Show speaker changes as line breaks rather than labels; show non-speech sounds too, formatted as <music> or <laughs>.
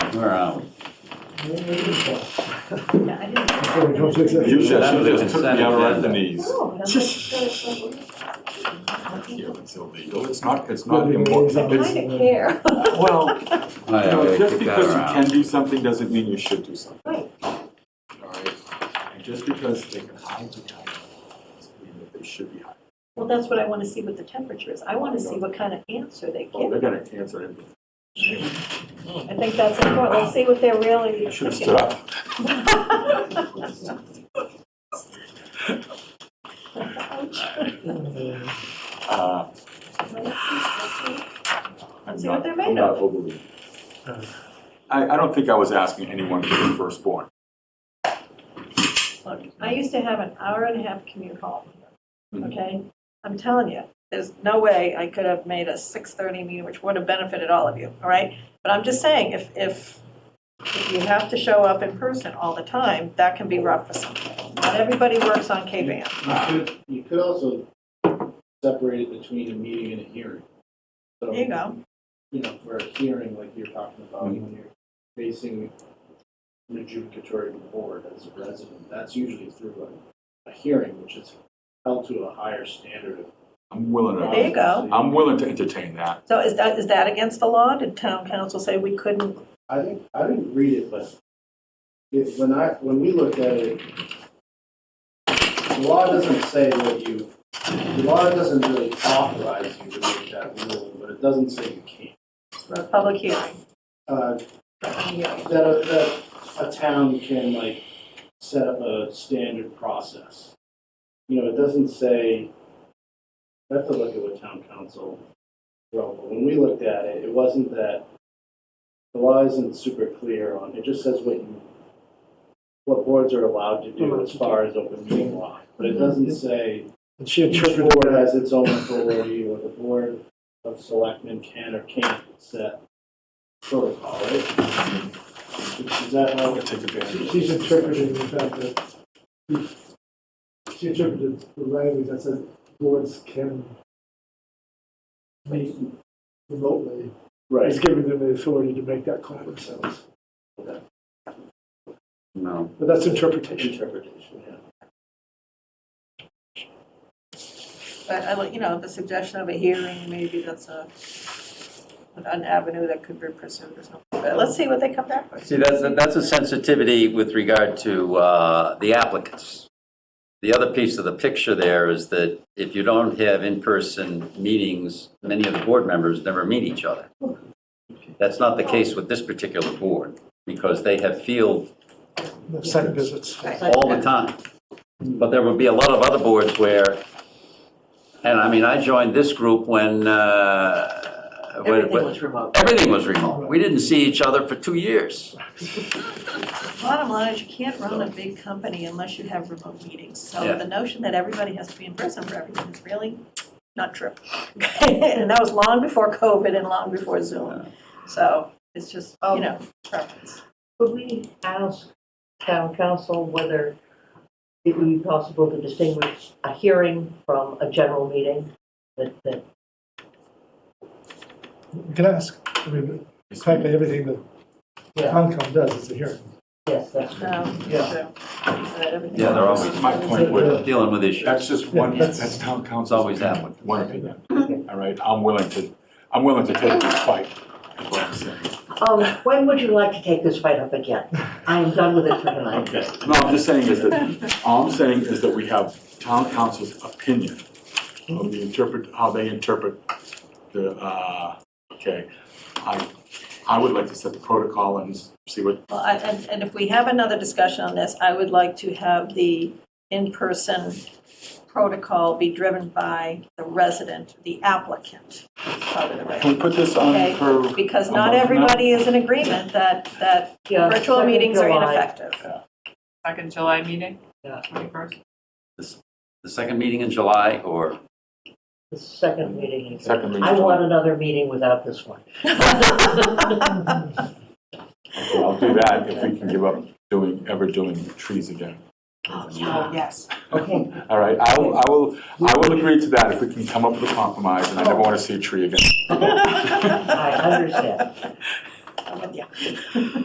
Where are we?
Yeah, I didn't.
Sorry, don't take that.
You said,
That
you
was a
just took me out right
consent agenda.
the knees.
No, but I'm like, uh,
Here, It's illegal, it's not, it's
Well,
not
they-
I
important. It's-
kind of care.
Well,
Oh, yeah,
you know,
we
just
kicked
because you
that around.
can do something doesn't mean you should do something.
Right.
All right, and just because they can hide the guy doesn't mean that they should be hiding.
Well, that's what I want to see what the temperature is. I want to see what kind of answer they
Oh,
give.
they're gonna answer it.
I think that's important. Let's see what they're really.
I should have stood up. Uh,
<laughs>
I'm
See what
not-
they're made
I'm not
of.
overly- I, I don't think I was asking anyone for the firstborn.
Look, I used to have an hour and a half commute home,
Mhm.
okay? I'm telling you, there's no way I could have made a 6:30 meeting, which would have benefited all of you, all right? But I'm just saying, if, if, if you have to show up in person all the time, that can be rough for some people. Not everybody works on K-Ban.
You could, you could also separate it between a meeting and a hearing. So,
There you go.
you know, for a hearing like you're talking about, when you're facing an adjudicatory board as a resident, that's usually through a, a hearing, which is held to a higher standard of.
I'm willing
There you
to,
go.
I'm willing to entertain that.
So is that, is that against the law? Did town council say we couldn't?
I think, I didn't read it, but it, when I, when we looked at it, the law doesn't say that you, the law doesn't really authorize you to make that rule, but it doesn't say you can't.
for a public hearing?
Uh,
Yeah.
that a, that a town can like set up a standard process. You know, it doesn't say, I have to look at what town council wrote, but when we looked at it, it wasn't that, the law isn't super clear on, it just says what you, what boards are allowed to do Mm-hmm. as far as open meeting law, but it doesn't say
And she
each
interpreted
board
that
has its own authority, or the board of selectmen can or can't set protocol, right? Is that
I'm
how?
gonna take advantage. of
She's
this.
interpreting the fact that she interpreted the language that says boards can meet remotely. It's giving them the authority to make that call themselves.
No.
But that's interpretation.
Interpretation, yeah.
But I, like- you know, the suggestion of a hearing, maybe that's a, an avenue that could be pursued or something. But let's see what they come back with.
See, that's, that's a sensitivity with regard to uh, the applicants. The other piece of the picture there is that if you don't have in-person meetings, many of the board members never meet each other. That's not the case with this particular board, because they have field
The site visits.
all the time. But there would be a lot of other boards where, and I mean, I joined this group when, uh, when-
Everything
when-
was remote.
everything was remote. We didn't see each other for two years.
Bottom line is you can't run a big company unless you have remote meetings. So
Yeah.
the notion that everybody has to be in person for everything is really not true. <laughs> And that was long before COVID and long before Zoom. So it's just, you know, preference.
Could we ask town council whether it would be possible to distinguish a hearing from a general meeting? That, that,
You can ask. I mean, frankly, everything that
yeah,
Concom does is a hearing.
yes, that's true.
No, it's
Yeah.
true. But everything-
Yeah, they're always-
My point was,
Dealing with issues.
That's just one,
Yeah, that's-
that's town council.
It's always that one.
One opinion. All right, I'm willing to, I'm willing to take this fight, is what I'm saying.
Um, when would you like to take this fight
<laughs>
up again? I am done with it for tonight.
Okay, no, I'm just saying is that, all I'm saying is that we have town council's opinion of the interpret, how they interpret the, uh, okay. I, I would like to set the protocol and see what,
Well, I- and, and if we have another discussion on this, I would like to have the in-person protocol be driven by the resident, the applicant, part of the
can
resident.
we put this on
Okay.
for?
Because
a
not
month from now?
everybody is in agreement that, that
Yeah,
virtual
second
meetings are
July.
ineffective.
Second July meeting?
Yeah.
Twenty-first?
The second meeting in July or?
The second meeting. is-
Second meeting.
I want another meeting without
<laughs>
this one.
I'll do that if we can give up doing, ever doing trees again.
Oh, yes.
Okay,
All right, I will, I will, I will agree to that if we can come up with a compromise, and I never want to see a tree again.
I understand.
I'm with you.